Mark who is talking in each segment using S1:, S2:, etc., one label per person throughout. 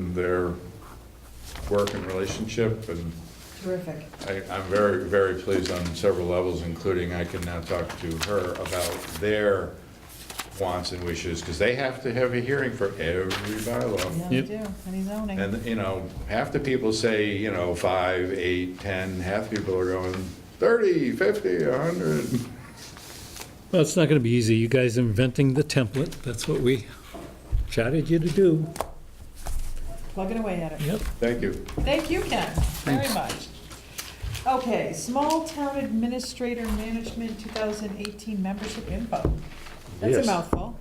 S1: and their work and relationship, and
S2: Terrific.
S1: I, I'm very, very pleased on several levels, including I can now talk to her about their wants and wishes, because they have to have a hearing for every bylaw.
S2: Yeah, we
S3: Yep.
S2: do, any zoning.
S1: And, you know, half the people say, you know, five, eight, 10, half the people are going 30, 50, 100.
S3: Well, it's not going to be easy. You guys inventing the template, that's what we chatted you to do.
S2: Plugging away at it.
S3: Yep.
S1: Thank you.
S2: Thank you, Ken, very much. Okay, Small Town Administrator Management 2018 Membership Info. That's a
S3: Yes.
S2: mouthful.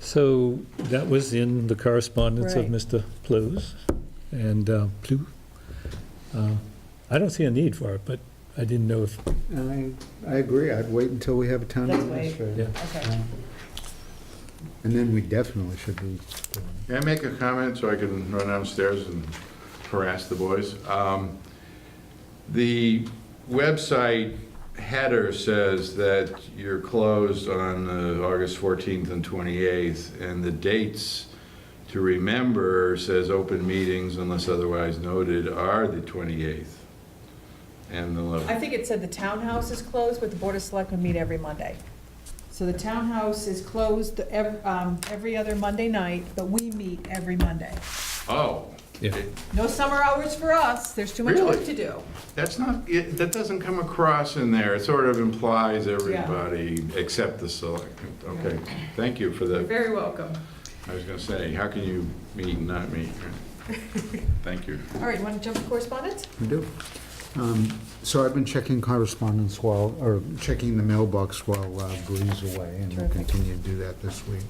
S3: So that was in the correspondence of
S2: Right.
S3: Mr. Plues and uh, Plu. Uh, I don't see a need for it, but I didn't know if,
S4: And I, I agree, I'd wait until we have a town
S2: Let's wait.
S3: yeah.
S4: administrator.
S2: Okay.
S4: And then we definitely should be, doing it.
S1: May I make a comment so I can run downstairs and harass the boys? Um, The website header says that you're closed on uh, August 14th and 28th, and the dates to remember says open meetings unless otherwise noted are the 28th and the 11th.
S2: I think it said the townhouse is closed, but the Board of Selectmen meet every Monday. So the townhouse is closed ev- um, every other Monday night, but we meet every Monday.
S1: Oh.
S3: Yeah.
S2: No summer hours for us, there's too much work
S1: Really?
S2: to do.
S1: That's not, it- that doesn't come across in there. It sort of implies everybody except the select. Okay, thank you for
S2: You're
S1: the,
S2: very welcome.
S1: I was gonna say, how can you meet and not meet? Thank you.
S2: All right, you want to jump to correspondence?
S4: we do. Um, So I've been checking correspondence while, or checking the mailbox while uh, Bree's away, and we'll
S2: Terrific.
S4: continue to do that this week.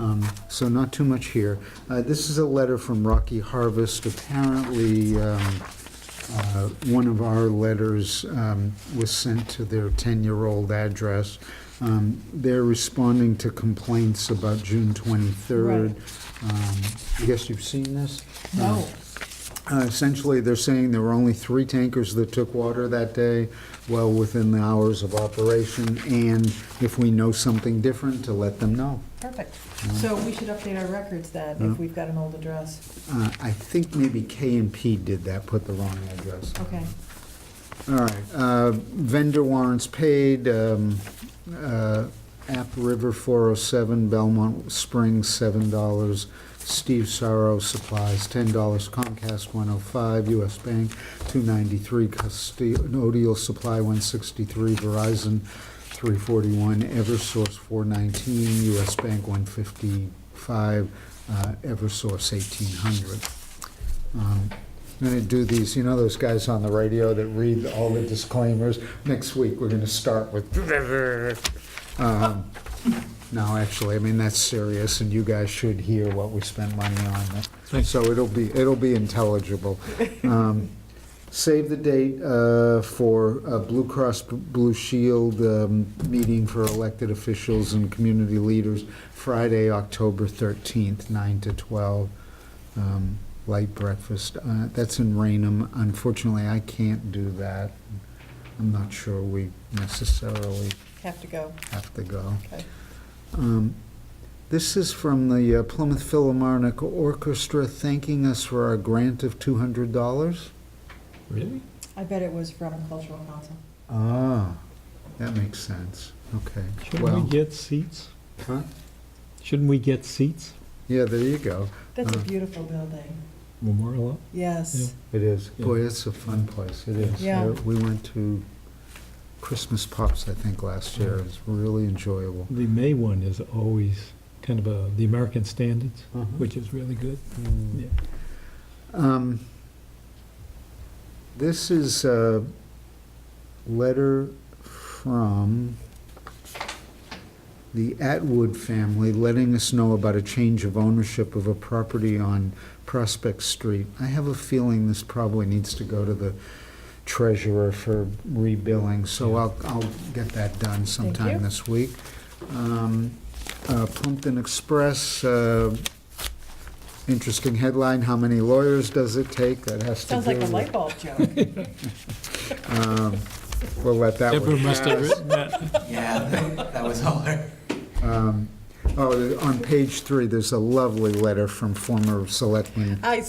S4: Um, So not too much here. Uh, This is a letter from Rocky Harvest. Apparently, um, uh, one of our letters um, was sent to their 10-year-old address. Um, They're responding to complaints about June 23rd. Um, I guess you've seen this? Um,
S2: No.
S4: uh, Essentially, they're saying there were only three tankers that took water that day, well within the hours of operation, and if we know something different, to let them know.
S2: Perfect. So we should update our records then, if we've got an old address.
S4: Uh, I think maybe K and P did that, put the wrong address.
S2: Okay.
S4: All right, uh, vendor warrants paid, um, uh, App River 407, Belmont Springs $7, Steve Sorrow Supplies $10, Comcast 105, US Bank 293, Custodial Supply 163, Verizon 341, Eversource 419, US Bank 155, uh, Eversource 1800. Um, I'm going to do these, you know those guys on the radio that read all the disclaimers? Next week, we're going to start with... Um, No, actually, I mean, that's serious, and you guys should hear what we spent money on.
S3: Thanks.
S4: So it'll be, it'll be intelligible. Um, Save the date uh, for a Blue Cross Blue Shield um, meeting for elected officials and community leaders, Friday, October 13th, 9 to 12 um, light breakfast. Uh, That's in Rainham. Unfortunately, I can't do that. I'm not sure we necessarily
S2: Have to go.
S4: have to go.
S2: Okay.
S4: Um, This is from the uh, Plymouth Philharmonic Orchestra thanking us for our grant of $200.
S3: Really?
S2: I bet it was from Cultural Council.
S4: Ah, that makes sense. Okay.
S3: Shouldn't we
S4: Well,
S3: get seats?
S4: huh?
S3: Shouldn't we get seats?
S4: yeah, there you go.
S2: That's a
S4: Uh.
S2: beautiful building.
S3: Memorial up?
S2: Yes.
S4: It is.
S3: Yeah.
S4: Boy, it's a fun place, it is.
S2: Yeah.
S4: We went to Christmas Pops, I think, last year. It was really enjoyable.
S3: The May one is always kind of a, the American standards,
S4: Mhm.
S3: which is really good.
S4: Mm.
S3: Yeah.
S4: Um, This is a letter from the Atwood family letting us know about a change of ownership of a property on Prospect Street. I have a feeling this probably needs to go to the treasurer for rebilling, so I'll, I'll get that done
S2: you.
S4: sometime this week. Um, uh, Plumpton Express, uh, interesting headline, how many lawyers does it take? That has to do
S2: Sounds like a
S4: with-
S2: light bulb joke.
S4: um, We'll let that
S3: Deborah
S4: one.
S3: must have written that.
S5: Yeah, that- that was all her.
S4: um, Oh, on page three, there's a lovely letter from former selectman
S2: I